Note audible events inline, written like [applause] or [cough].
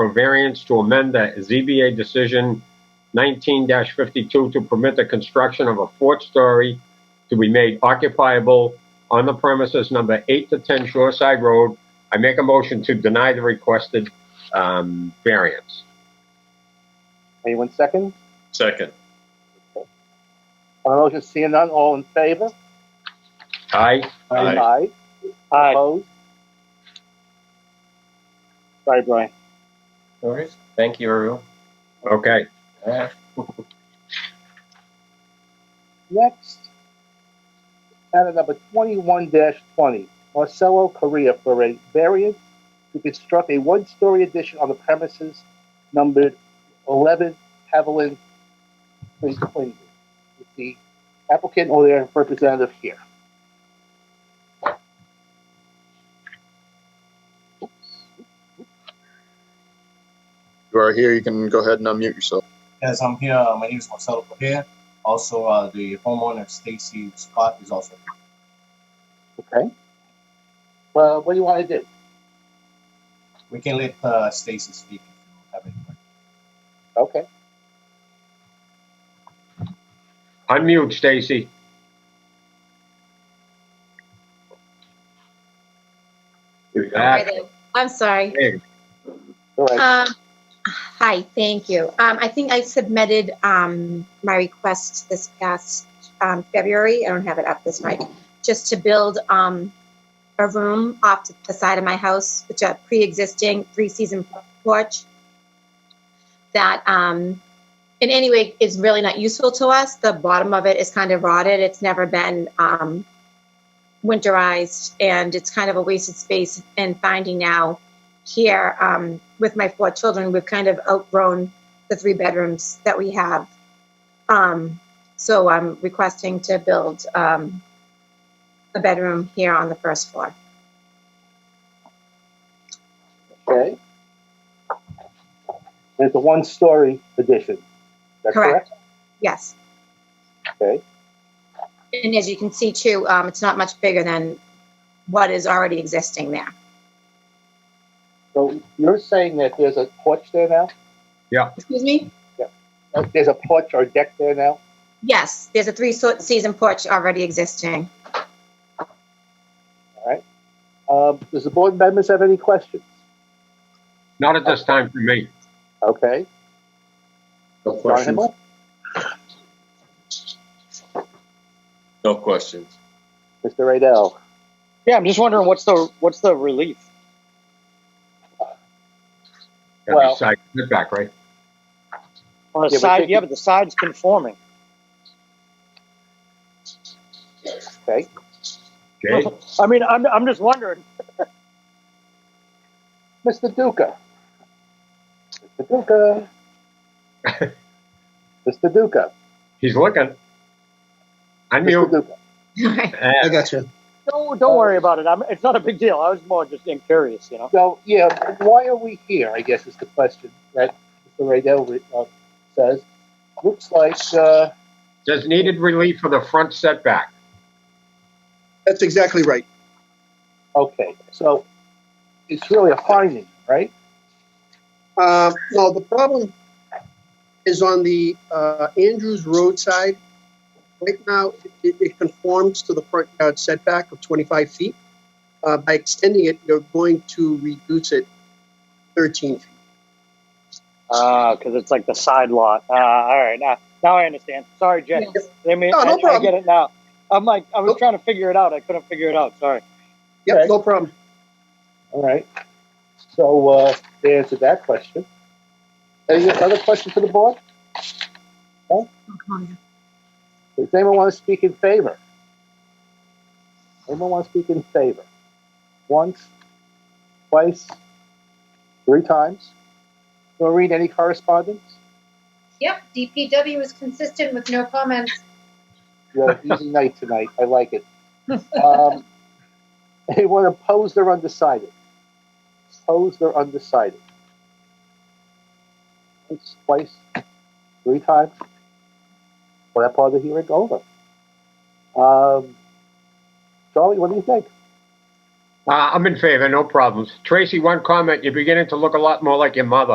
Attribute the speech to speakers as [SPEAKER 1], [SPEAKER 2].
[SPEAKER 1] for variance to amend the ZBA decision 19-52 to permit the construction of a fourth story to be made occupiable on the premises number 8 to 10 Shoreside Road. I make a motion to deny the requested um, variance.
[SPEAKER 2] Anyone second?
[SPEAKER 3] Second.
[SPEAKER 2] On the motion, seeing none, all in favor?
[SPEAKER 1] Aye?
[SPEAKER 3] Aye.
[SPEAKER 2] Aye. Opposed? Sorry, Brian.
[SPEAKER 4] No worries. Thank you, everyone.
[SPEAKER 1] Okay.
[SPEAKER 4] All right.
[SPEAKER 2] Next, matter number twenty-one twenty, Marcelo Correa for a variance to construct a one-story addition on the premises numbered eleven Haviland Place, Quincy. Is the applicant or their representative here?
[SPEAKER 5] You are here. You can go ahead and unmute yourself.
[SPEAKER 6] Yes, I'm here. Uh, My name is Marcelo Correa. Also, uh, the homeowner Stacy Scott is also. here.
[SPEAKER 2] Okay. Well, what do you want to do?
[SPEAKER 6] We can let uh, Stacy speak if you have any questions.
[SPEAKER 2] Okay.
[SPEAKER 1] Unmute, Stacy. You're back.
[SPEAKER 7] Hi there. I'm sorry.
[SPEAKER 1] There you go.
[SPEAKER 2] All right.
[SPEAKER 7] Um, Hi, thank you. Um, I think I submitted um, my request this past um, February. I don't have it up this night. Just to build um, a room off to the side of my house, which a pre-existing three-season porch that um, in any way is really not useful to us. The bottom of it is kind of rotted. It's never been um, winterized, and it's kind of a wasted space. And finding now here um, with my four children, we've kind of outgrown the three bedrooms that we have. Um, so I'm requesting to build um, a bedroom here on the first floor.
[SPEAKER 2] Okay. It's a one-story addition. Is that
[SPEAKER 7] Correct. Yes.
[SPEAKER 2] Okay.
[SPEAKER 7] And as you can see too, um, it's not much bigger than what is already existing there.
[SPEAKER 2] So you're saying that there's a porch there now?
[SPEAKER 7] Excuse me?
[SPEAKER 2] Uh, There's a porch or deck there now?
[SPEAKER 7] Yes, there's a three-season porch already existing. [laughs]
[SPEAKER 2] Um, does the board members have any questions?
[SPEAKER 1] Not at this time for me.
[SPEAKER 2] Okay.
[SPEAKER 5] No
[SPEAKER 2] John Himmel?
[SPEAKER 3] No questions.
[SPEAKER 2] Mr. Radell?
[SPEAKER 8] Yeah, I'm just wondering what's the what's the relief?
[SPEAKER 1] Got
[SPEAKER 2] Well-
[SPEAKER 1] the side setback, right?
[SPEAKER 8] On the
[SPEAKER 2] Yeah, but
[SPEAKER 8] side,
[SPEAKER 2] they-
[SPEAKER 8] yeah, but the side's conforming.
[SPEAKER 2] Okay.
[SPEAKER 1] Jay?
[SPEAKER 8] I mean, I'm I'm just wondering.
[SPEAKER 2] Mr. Duca? Mr. Duca? Mr. Duca?
[SPEAKER 1] He's looking.
[SPEAKER 2] Mr.
[SPEAKER 1] Unmute.
[SPEAKER 2] Duca?
[SPEAKER 1] Uh,
[SPEAKER 5] got you.
[SPEAKER 8] Don't don't
[SPEAKER 9] Uh,
[SPEAKER 8] worry about it. I'm, it's not a big deal. I was more just curious, you know.
[SPEAKER 2] So, yeah, why are we here, I guess is the question that Mr. Radell uh, says. Looks like, uh,
[SPEAKER 1] Says needed relief for the front setback.
[SPEAKER 5] That's exactly right.
[SPEAKER 2] okay, so it's really a finding, right?
[SPEAKER 9] Uh, no, the problem is on the uh, Andrews Road side. Right now, it, it conforms to the front yard setback of 25 feet. Uh, by extending it, you're going to reduce it 13 feet.
[SPEAKER 8] Ah, because it's like the side lot. Ah, all right. Now now I understand. Sorry, Jay.
[SPEAKER 7] Yes.
[SPEAKER 8] I mean,
[SPEAKER 9] No, no
[SPEAKER 8] I- I,
[SPEAKER 9] problem. Oh.
[SPEAKER 8] get it now. I'm like, I was
[SPEAKER 9] Nope.
[SPEAKER 8] trying to figure it out. I couldn't figure it out. Sorry.
[SPEAKER 9] Yep,
[SPEAKER 2] Okay.
[SPEAKER 9] no problem.
[SPEAKER 2] All right. So, uh, they answered that question. Any other questions for the board? Does anyone want to speak in favor? Anyone want to speak in favor? Once, twice, three times? Noreen, any correspondence?
[SPEAKER 10] Yep, DPW is consistent with no comments.
[SPEAKER 2] You had an easy night tonight. I like it. Um, [laughs] anyone opposed or undecided? Opposed or undecided? Once, twice, three times? Well, that part of the hearing over. Um, Charlie, what do you think?
[SPEAKER 1] Uh, I'm in favor, no problems. Tracy, one comment. You're beginning to look a lot more like your mother.